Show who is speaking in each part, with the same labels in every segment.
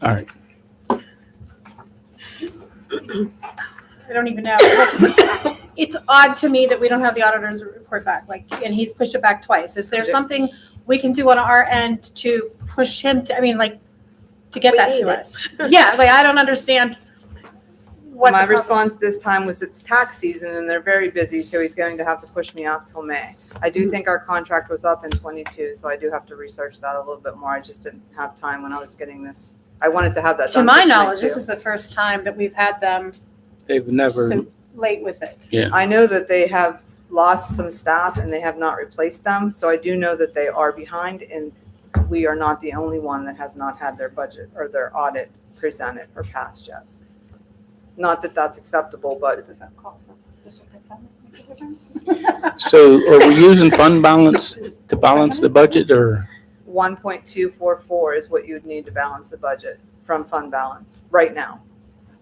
Speaker 1: All right.
Speaker 2: I don't even know. Like, It's odd to me that we don't have the auditor's report back, like, and he's pushed it back twice. Is there something we can do on our end to push him to, I mean, like, to get
Speaker 3: We
Speaker 2: that
Speaker 3: need
Speaker 2: to
Speaker 3: it.
Speaker 2: us? Yeah, like, I don't understand what
Speaker 4: My
Speaker 2: the problem.
Speaker 4: response this time was it's tax season and they're very busy, so he's going to have to push me off till May. I
Speaker 2: Mm-hmm.
Speaker 4: do think our contract was up in twenty-two, so I do have to research that a little bit more. I just didn't have time when I was getting this. I wanted to have that
Speaker 2: To
Speaker 4: done.
Speaker 2: my
Speaker 4: for tonight,
Speaker 2: knowledge, this
Speaker 4: too.
Speaker 2: is the first time that we've had them
Speaker 1: They've never,
Speaker 2: so late with it.
Speaker 4: I know that they have lost some staff and they have not replaced them, so I do know that they are behind and we are not the only one that has not had their budget or their audit presented or passed yet. Not that that's acceptable, but
Speaker 1: so are we using fund balance to balance the budget or?
Speaker 4: one point two four four is what you'd need to balance the budget from fund balance right now.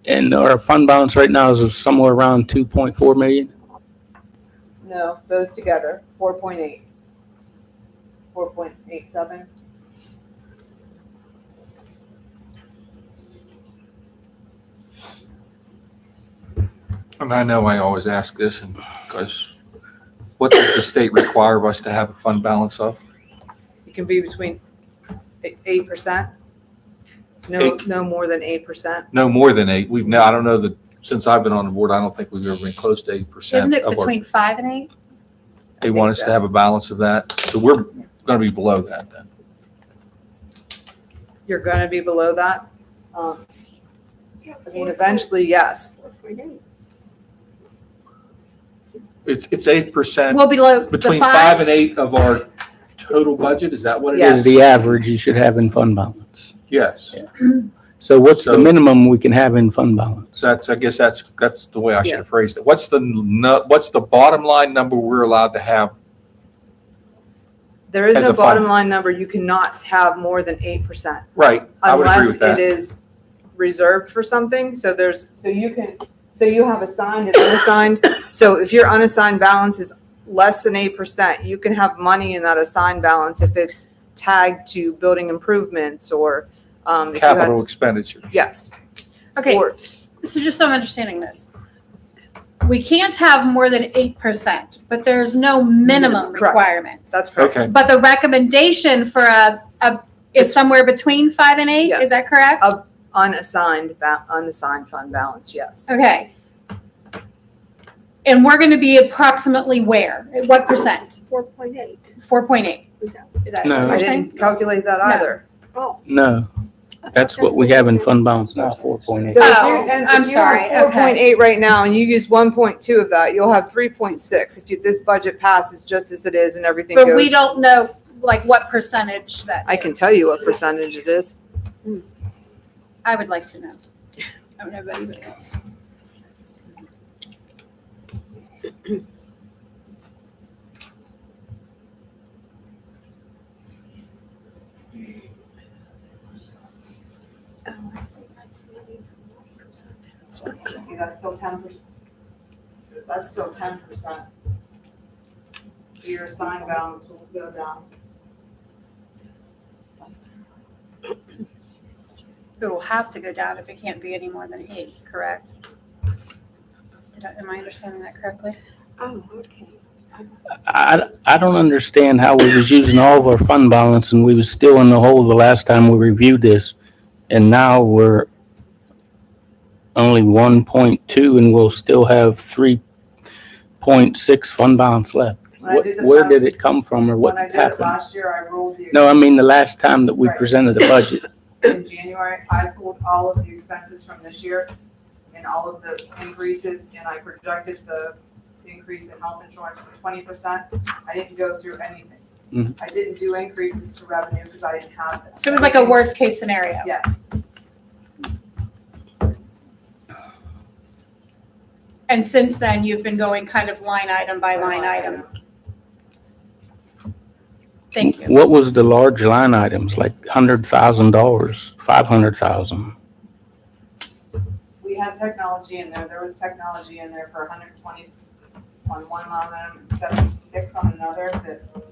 Speaker 1: And our fund balance right now is somewhere around 2.4 million?
Speaker 4: No, those together, four point eight. Four point eight seven.
Speaker 5: And I know I always ask this, and, because what does the state require of us to have a fund balance of?
Speaker 4: It can be between eight percent. No,
Speaker 5: Eight.
Speaker 4: no more than eight percent.
Speaker 5: No more than eight. We've now, I don't know that, since I've been on the board, I don't think we've ever been close to eight percent.
Speaker 2: Isn't it between five and eight?
Speaker 5: They want us to have a balance of that, so we're gonna be below that then.
Speaker 4: you're gonna be below that. Um, I mean, eventually, yes.
Speaker 5: It's, it's eight percent,
Speaker 2: Well, below the
Speaker 5: Uh, between five
Speaker 2: five,
Speaker 5: and eight of our total budget, is that what it
Speaker 4: Yes.
Speaker 5: is?
Speaker 1: Is the average you should have in fund balance?
Speaker 5: Yes.
Speaker 1: So what's the
Speaker 5: So-
Speaker 1: minimum we can have in fund balance?
Speaker 5: So that's, I guess that's, that's the way I should have phrased it. What's the, nu- what's the bottom line number we're allowed to have?
Speaker 4: There is
Speaker 5: As
Speaker 4: no
Speaker 5: a fund.
Speaker 4: bottom line number. You cannot have more than eight percent
Speaker 5: Right, I would agree with
Speaker 4: unless
Speaker 5: that.
Speaker 4: it is reserved for something. So there's, so you can, so you have assigned and unassigned. So if your unassigned balance is less than eight percent, you can have money in that assigned balance if it's tagged to building improvements or, um, if you had-
Speaker 5: Capital expenditure.
Speaker 4: Yes.
Speaker 2: okay,
Speaker 4: Or-
Speaker 2: so just so I'm understanding this. We can't have more than eight percent, but there's no minimum
Speaker 4: Minimum, correct.
Speaker 2: requirement.
Speaker 4: That's correct.
Speaker 5: Okay.
Speaker 2: But the recommendation for a, a, is somewhere between five and eight, is
Speaker 4: Yes.
Speaker 2: that correct?
Speaker 4: Of- Unassigned, ba- unassigned fund balance, yes.
Speaker 2: Okay. And we're gonna be approximately where, At what percent?
Speaker 3: Four point eight.
Speaker 2: Four point eight, is that what
Speaker 1: No.
Speaker 2: you're
Speaker 4: I
Speaker 2: saying?
Speaker 4: didn't calculate that
Speaker 2: No.
Speaker 4: either.
Speaker 1: No, that's what we have in fund balance now, 4.8.
Speaker 4: So if
Speaker 2: Oh,
Speaker 4: you're- and if
Speaker 2: I'm
Speaker 4: you're
Speaker 2: sorry,
Speaker 4: at
Speaker 2: okay.
Speaker 4: 4.8 right now, and you use 1.2 of that, you'll have 3.6 if you- this budget passes just as it is and everything goes.
Speaker 2: But we don't know, like, what percentage that.
Speaker 4: I can
Speaker 2: is.
Speaker 4: tell you what percentage it is.
Speaker 2: I would like to know. I don't know about anybody else.
Speaker 4: See, that's still 10%. That's still 10%. So your assigned balance will go down.
Speaker 2: It will have to go down if it can't be any more than eight, correct? Did I- Am I understanding that correctly?
Speaker 3: Oh, okay.
Speaker 1: I, I don't understand how we was using all of our fund balance and we was still in the hole the last time we reviewed this. And now we're only one point two and we'll still have three point six fund balance left.
Speaker 4: When I
Speaker 1: What-
Speaker 4: did the
Speaker 1: Where
Speaker 4: fund-
Speaker 1: did it come from or what
Speaker 4: When I did it
Speaker 1: happened?
Speaker 4: last year, I rolled the.
Speaker 1: No, I mean the last time that we
Speaker 4: Right.
Speaker 1: presented the budget.
Speaker 4: in January, I pulled all of the expenses from this year and all of the increases, and I projected the increase in health insurance for twenty percent. I didn't go through anything.
Speaker 1: Mhm.
Speaker 4: I didn't do increases to revenue because I didn't have them.
Speaker 2: So it was like a worst-case scenario.
Speaker 4: Yes,
Speaker 2: And since then, you've been going kind of line item by line item. Thank you.
Speaker 1: What was the large line items, like hundred thousand dollars, five hundred thousand?
Speaker 4: We had technology in there, there was technology in there for hundred and twenty on one line item, seventy-six on another, that